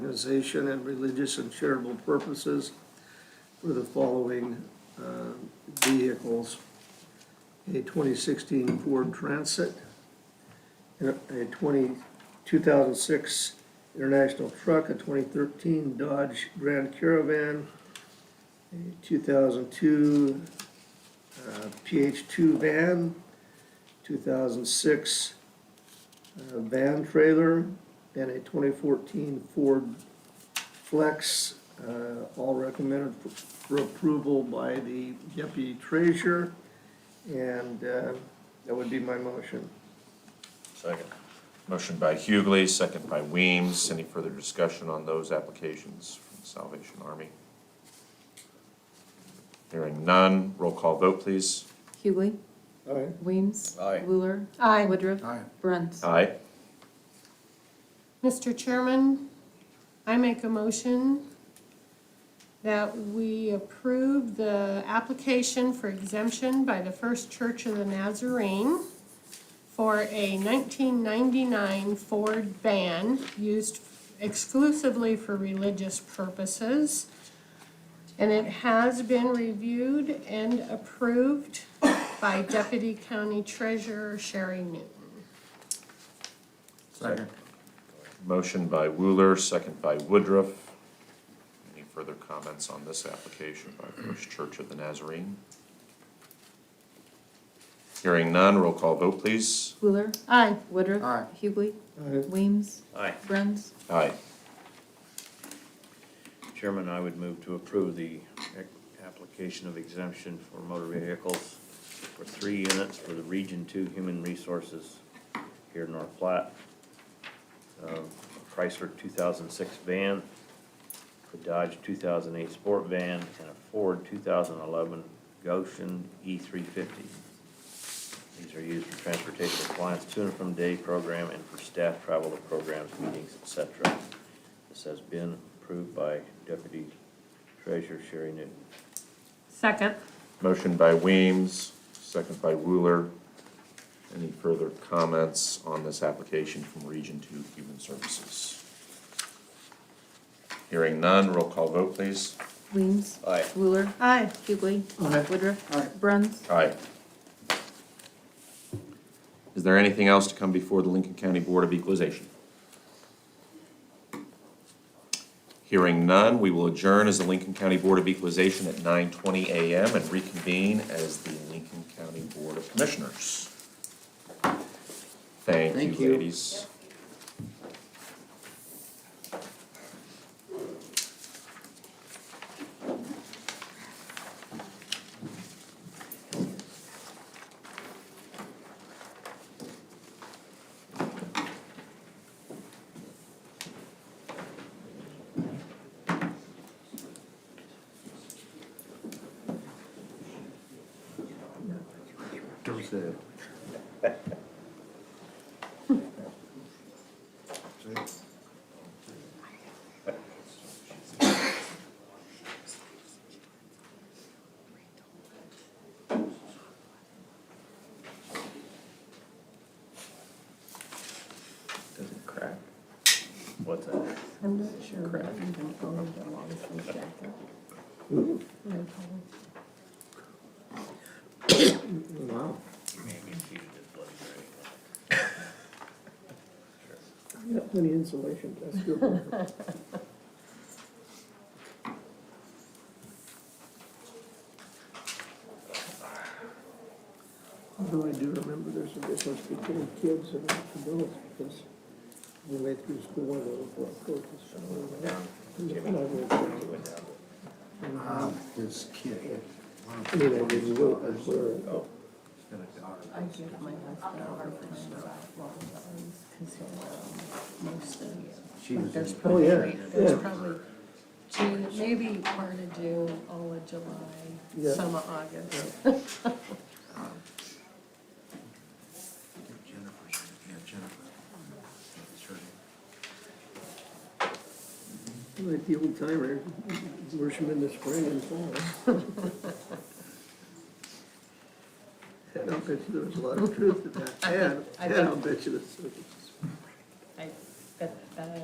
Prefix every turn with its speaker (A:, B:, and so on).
A: organization and religious and charitable purposes for the following uh, vehicles. A 2016 Ford Transit, and a 20 2006 International Truck, a 2013 Dodge Grand Caravan, a 2002 uh, PH2 van, 2006 uh, van trailer, and a 2014 Ford Flex, uh, all recommended for- for approval by the deputy treasurer. And uh, that would be my motion.
B: Second. Motion by Hughley, second by Weems. Any further discussion on those applications from the Salvation Army? Hearing none, roll call vote, please.
C: Hughley.
A: All right.
C: Weems.
B: Aye.
C: Wheeler.
D: Aye.
C: Woodruff. Brent.
B: Aye.
D: Mr. Chairman, I make a motion that we approve the application for exemption by the First Church of the Nazarene for a 1999 Ford van used exclusively for religious purposes. And it has been reviewed and approved by Deputy County Treasurer Sherry Newton.
B: Second. Motion by Wheeler, second by Woodruff. Any further comments on this application by First Church of the Nazarene? Hearing none, roll call vote, please.
C: Wheeler.
D: Aye.
C: Woodruff.
E: Aye.
C: Hughley.
A: Aye.
C: Weems.
F: Aye.
C: Brent.
B: Aye.
F: Chairman, I would move to approve the ac- application of exemption for motor vehicles for three units for the Region Two Human Resources here in North Platte. Um, Chrysler two thousand six van, a Dodge two thousand eight sport van, and a Ford two thousand eleven Goshen E three fifty. These are used for transportation of clients to and from day program and for staff travel to programs, meetings, et cetera. This has been approved by Deputy Treasurer Sherry Newton.
D: Second.
B: Motion by Weems, second by Wooler. Any further comments on this application from Region Two Human Services? Hearing none, roll call vote, please.
C: Weems.
F: Aye.
C: Wheeler.
D: Aye.
C: Hughley.
A: Aye.
C: Woodruff.
E: Aye.
C: Brent.
B: Aye. Is there anything else to come before the Lincoln County Board of Equalization? Hearing none, we will adjourn as the Lincoln County Board of Equalization at nine twenty AM and reconvene as the Lincoln County Board of Commissioners. Thank
E: Thank
B: you,
E: you.
B: ladies.
E: There's a.
F: Does it crack? What's that?
D: I'm not sure. what I'm gonna go with the long sleeve jacket.
A: Hmm.
D: No problem.
A: Wow.
F: Maybe if you did bloody great.
A: You got plenty of insulation, that's good. Although I do remember there's a difference between kids and adults, because we went through school and we were coaches.
E: Wow, this kid. Oh.
A: I mean, I didn't go, I was, uh,
D: I give my husband a hard time about long sleeves, 'cause he'll wear 'em most of
E: She was
D: There's
E: in-
D: probably,
A: Oh, yeah, yeah.
D: there's probably June, maybe part of June, all of July,
A: Yeah.
D: some of August.
E: Jennifer's, yeah, Jennifer. It's her name.
A: like the old timer, worship in the spring and fall. And I'll bet you there was a lot of truth to that, and,
D: I
A: and I'll
D: think-
A: bet you there's